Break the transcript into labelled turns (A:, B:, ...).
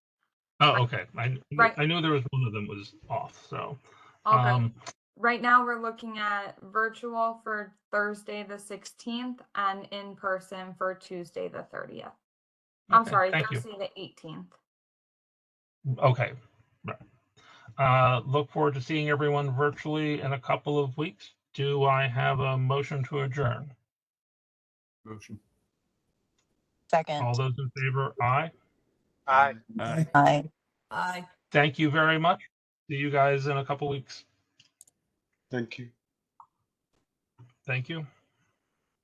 A: Oh, okay. I,
B: Right.
A: I knew there was one of them was off, so.
B: All good.
A: um,
B: Right now, we're looking at virtual for Thursday, the 16th, and in person for Tuesday, the 30th. I'm
A: okay,
B: sorry,
A: Thank you.
B: Thursday, the 18th.
A: Okay. right. Uh, look forward to seeing everyone virtually in a couple of weeks. Do I have a motion to adjourn?
C: Motion.
D: Second.
A: All those in favor, aye.
C: Aye.
E: Aye.
D: Aye.
E: Aye.
A: Thank you very much. See you guys in a couple weeks.
C: Thank you.
A: Thank you.